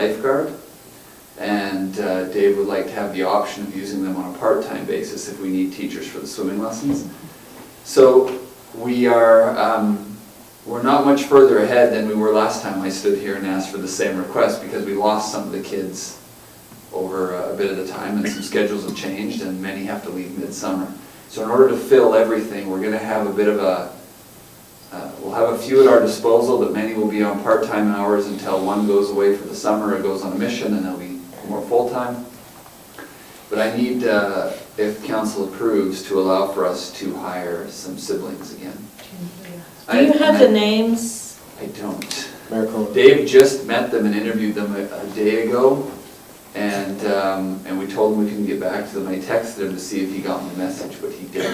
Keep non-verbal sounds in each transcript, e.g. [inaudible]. lifeguard. And uh, Dave would like to have the option of using them on a part-time basis if we need teachers for the swimming lessons. So we are, um, we're not much further ahead than we were last time I stood here and asked for the same request because we lost some of the kids over a bit of the time and some schedules have changed and many have to leave midsummer. So in order to fill everything, we're gonna have a bit of a, uh, we'll have a few at our disposal, but many will be on part-time hours until one goes away for the summer or goes on a mission and they'll be more full-time. But I need, uh, if council approves, to allow for us to hire some siblings again. Do you I- have the names? I don't. Mayor Cohen. Dave just met them and interviewed them a, a day ago, and, um, and we told him we couldn't get back to them. I texted him to see if he got my message, but he Okay.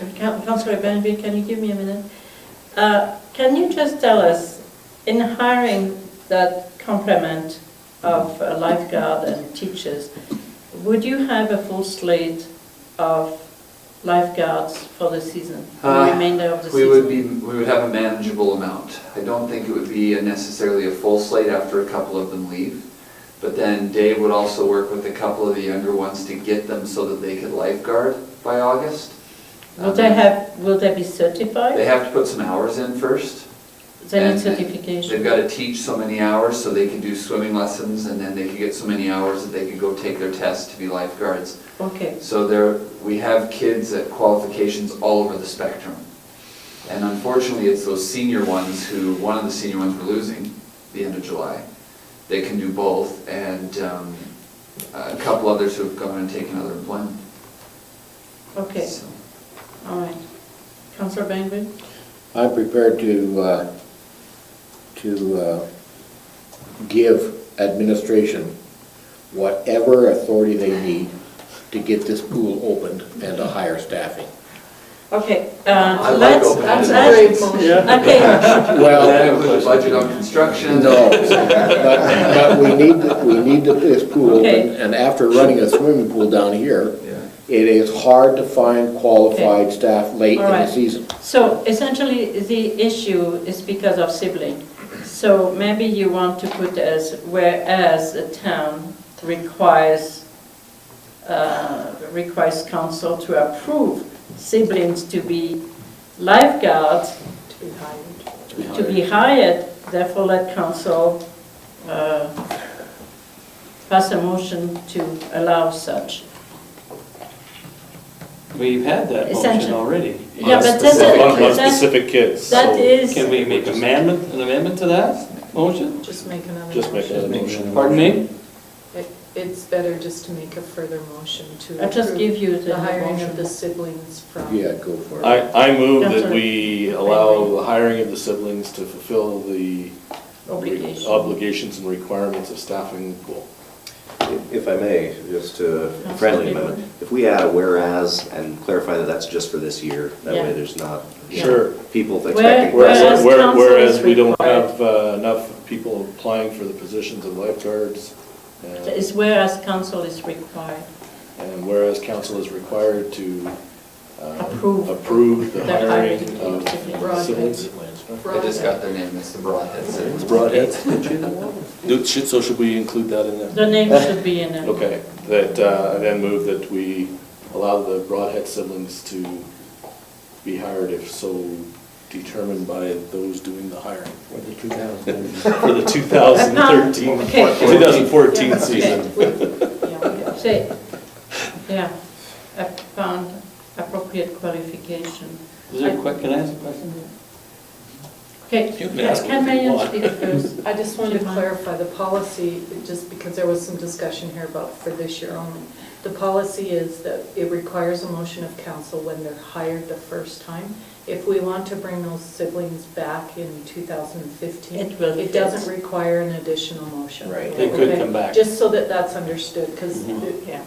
didn't. Coun- Councillor Benby, can you give me a minute? Uh, Can you just tell us, in hiring that complement of a lifeguard and teachers, would you have a full slate of lifeguards for the season, for Uh, the remainder of the season? We would be, we would have a manageable amount. I don't think it would be a necessarily a full slate after a couple of them leave. But then Dave would also work with a couple of the younger ones to get them so that they could lifeguard by August. Um, Will they have, will they be certified? They have to put some hours in first. And- They need and They've certification. got to teach so many hours so they can do swimming lessons, and then they could get so many hours that they could go take their test to be lifeguards. Okay, So there, we have kids at qualifications all over the spectrum. And unfortunately, it's those senior ones who, one of the senior ones we're losing, the end of July. They can do both, and um, a couple others who have gone and taken other employment. okay, So- all right. Councillor Benby? I'm prepared to, uh, to uh, give administration whatever authority they need to get this pool opened and to hire staffing. Okay, I uh, like let's, open let's- ended [laughs] okay, Well, Put a budget on construction. no, but, but we need, to- we need to- this pool open, Okay. and after running a swimming pool down here, [laughs] Yeah. it is hard to find qualified staff late in All the right. season. so essentially, the issue is because of sibling. So maybe you want to put as, whereas the town requires, uh, requires council to approve siblings to be lifeguards. To be hired. therefore let council uh, pass a motion to allow such. We've had that motion Essential. already. Yeah, but that's specific- a- On on that's- specific kids. that So is- Can Can we make an amendment, an amendment to that motion? Just make another Just make motion. another motion. Pardon me? It- It's better just to make a further motion to I'll just approve give you the the hiring of the motion. siblings from. Yeah, go for it. I, I move that Counselor. we allow the hiring of the siblings to fulfill the re- Obligation. obligations and requirements of staffing the pool. If I may, just a Councilor friendly Baker. amendment, if we add a whereas and clarify that that's just for this year, that Yeah. way there's not Sure. people Where- expecting. Whereas Whereas, where- counsel whereas is we don't required. have uh, enough people applying for the positions of lifeguards, and It's whereas council is required. and whereas council is required to uh, Approve. approve the The hiring hiring of of Broadheads. siblings. I just got their name, it's the Broadheads. Dude, shit, so should we include that in there? The name should be in it. Okay, that, uh, I then move that we allow the Broadhead siblings to be hired if so determined by those doing the hiring for the 2013, [laughs] Okay. 2014 season. Yeah. Say, yeah, I found appropriate qualification. Is there a que, can I ask a question? Okay, You can ask can what you Marion want. speak [laughs] first? I just wanted to Sure. clarify the policy, just because there was some discussion here about for this year only. The policy is that it requires a motion of council when they're hired the first time. If we want to bring those siblings back in 2015, It will it fit. doesn't require an additional motion. Right. They could Okay? come back. Mm-hmm. Just so that that's understood, because Yeah.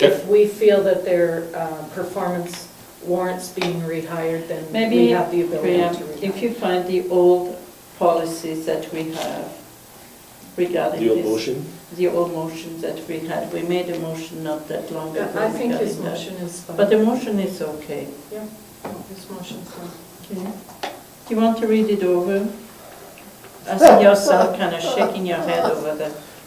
if we feel that their uh, performance warrants being rehired, then we Maybe, have the ability Priya, to rehire. if you find the old policies that we have regarding The this. old motion? The old motion that we had, we made a motion not that long ago. Yeah, I think his regarding that. motion is fine. But the motion is okay. Yeah, his motion's fine. Okay. Do you want to read it over? I see yourself kind of shaking your head over the